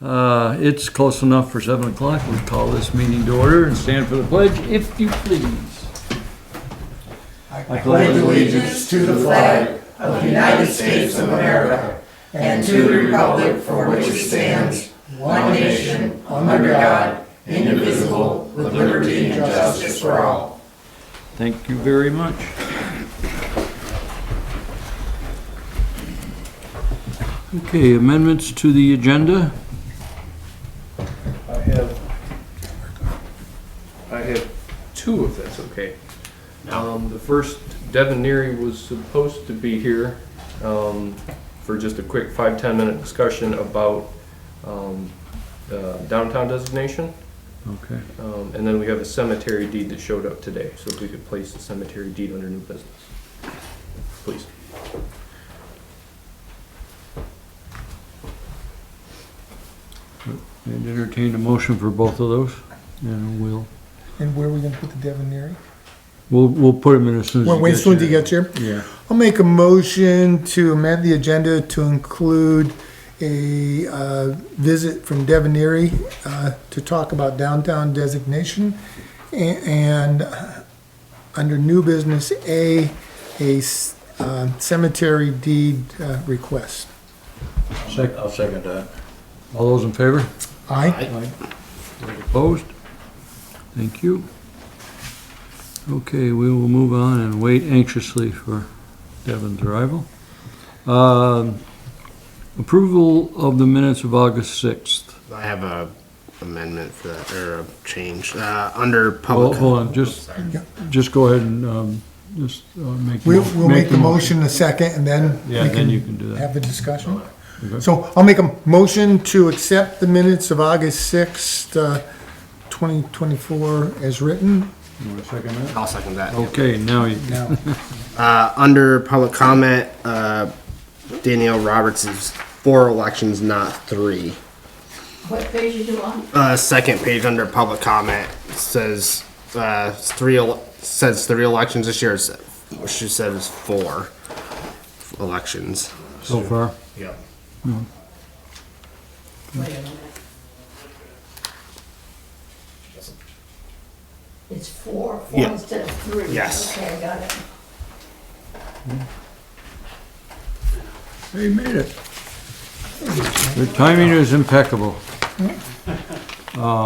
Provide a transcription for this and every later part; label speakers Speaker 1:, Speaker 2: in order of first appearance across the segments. Speaker 1: Uh, It's close enough for 7 o'clock. We call this meeting to order and stand for the pledge, if you please. I pledge
Speaker 2: allegiance to the flag of the United States of America and to the republic for which it stands, one nation, under God, indivisible, with liberty and justice for all.
Speaker 1: Thank you very much. Okay, amendments to the agenda?
Speaker 3: I have, I have two if that's okay. Um, the first, Devin Neary was supposed to be here, um, for just a quick five, ten minute discussion about, um, uh, downtown designation.
Speaker 1: Okay.
Speaker 3: Um, and then we have a cemetery deed that showed up today, so if we could place the cemetery deed under new business. Please.
Speaker 1: And entertain a motion for both of those, and we'll,
Speaker 4: And where are we gonna put the Devonary?
Speaker 1: we'll, we'll put them in as soon as
Speaker 4: Wait,
Speaker 1: you
Speaker 4: wait, as soon as you
Speaker 1: get
Speaker 4: get here.
Speaker 1: here. Yeah.
Speaker 4: I'll make a motion to amend the agenda to include a, uh, visit from Devonary, uh, to talk about downtown designation. a- And, uh, under new business A, a s- uh, cemetery deed, uh, request.
Speaker 5: I'll second that.
Speaker 1: All those in favor?
Speaker 4: Aye?
Speaker 1: Opposed? Thank you. Okay, we will move on and wait anxiously for Devin's arrival. Um, Approval of the minutes of August 6th.
Speaker 6: I have a amendment for that, or a change, uh, under
Speaker 1: Hold
Speaker 6: public.
Speaker 1: hold on, just, just go ahead and um, just uh, make. the
Speaker 4: We'll,
Speaker 1: mo-
Speaker 4: we'll make the motion a second and then. we
Speaker 1: Yeah, then you can do that.
Speaker 4: have the discussion.
Speaker 1: Okay.
Speaker 4: So I'll make a motion to accept the minutes of August 6th, uh, 2024 as written.
Speaker 1: You want to second that?
Speaker 6: I'll second that.
Speaker 1: Okay, now you,
Speaker 4: Now,
Speaker 6: Uh, under public comment, uh, Danielle Roberts is four elections, not three.
Speaker 2: What page are you on?
Speaker 6: Uh, second page under public comment says, uh, it's three, el- says three elections this year, it's- she said it was four elections.
Speaker 1: so far.
Speaker 6: Yep.
Speaker 2: Wait a minute. It's four, four
Speaker 6: Yeah.
Speaker 2: instead of three.
Speaker 6: Yes.
Speaker 2: Okay, I got it.
Speaker 1: They made it. Their timing is impeccable.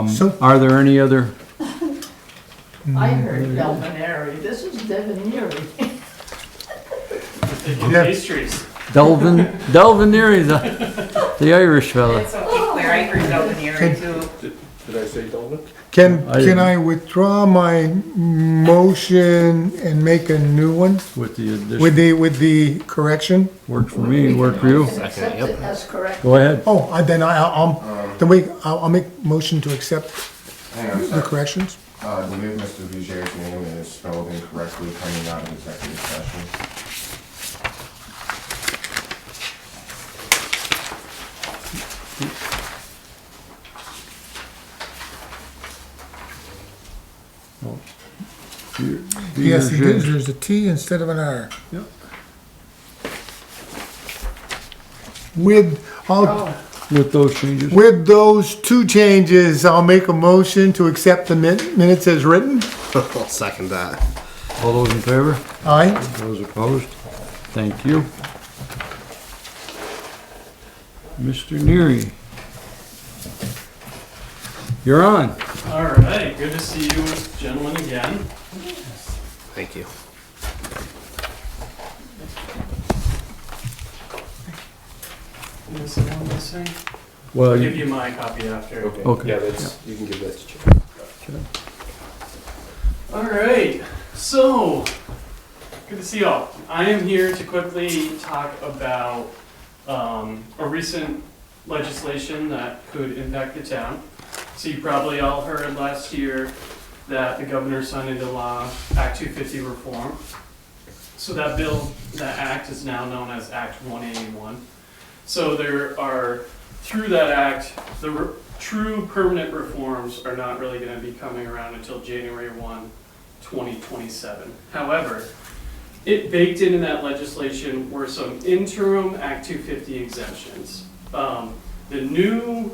Speaker 4: So,
Speaker 1: Are there any other,
Speaker 2: I heard Delvinary, this is Devonary.
Speaker 4: Yeah.
Speaker 7: Pastries.
Speaker 1: Delvin, Delvin Neary, the, the Irish fella.
Speaker 8: It's
Speaker 2: Oh,
Speaker 8: okay, Claire, I heard out in the area too.
Speaker 3: Did I say Dolan?
Speaker 4: can,
Speaker 1: I-
Speaker 4: can I withdraw my motion and make a new one
Speaker 1: With the
Speaker 4: with
Speaker 1: addition,
Speaker 4: the, with the correction?
Speaker 1: worked for me, worked for you.
Speaker 2: Accept it as correct.
Speaker 1: Go ahead.
Speaker 4: Oh, I- then I, I'll, then wait, I'll, I'll make motion to accept
Speaker 5: Hang on a
Speaker 4: the
Speaker 5: sec.
Speaker 4: corrections.
Speaker 5: Uh, I believe Mr. Vijay's name is spelled incorrectly coming out of executive session.
Speaker 4: Yes, it is, there's a T instead of an R.
Speaker 1: Yep.
Speaker 4: With, I'll,
Speaker 1: With those changes,
Speaker 4: With those two changes, I'll make a motion to accept the min- minutes as written.
Speaker 6: I'll second that.
Speaker 1: all those in favor?
Speaker 4: Aye.
Speaker 1: Those opposed? Thank you. Mr. Neary. You're on.
Speaker 7: All right, good to see you gentlemen again.
Speaker 6: Thank you.
Speaker 7: Is there one missing?
Speaker 1: Well,
Speaker 7: I'll give
Speaker 1: you-
Speaker 7: you my copy after.
Speaker 1: Okay.
Speaker 3: Yeah, that's, you can give that to Chip.
Speaker 7: All right, so good to see you all. I am here to quickly talk about um, a recent legislation that could impact the town. So you probably all heard last year that the governor signed into law Act 250 reform. So that bill, that act is now known as Act 181. So there are, through that act, the re- true permanent reforms are not really going to be coming around until January 1, 2027. However, it baked into that legislation were some interim Act 250 exemptions. Um, The new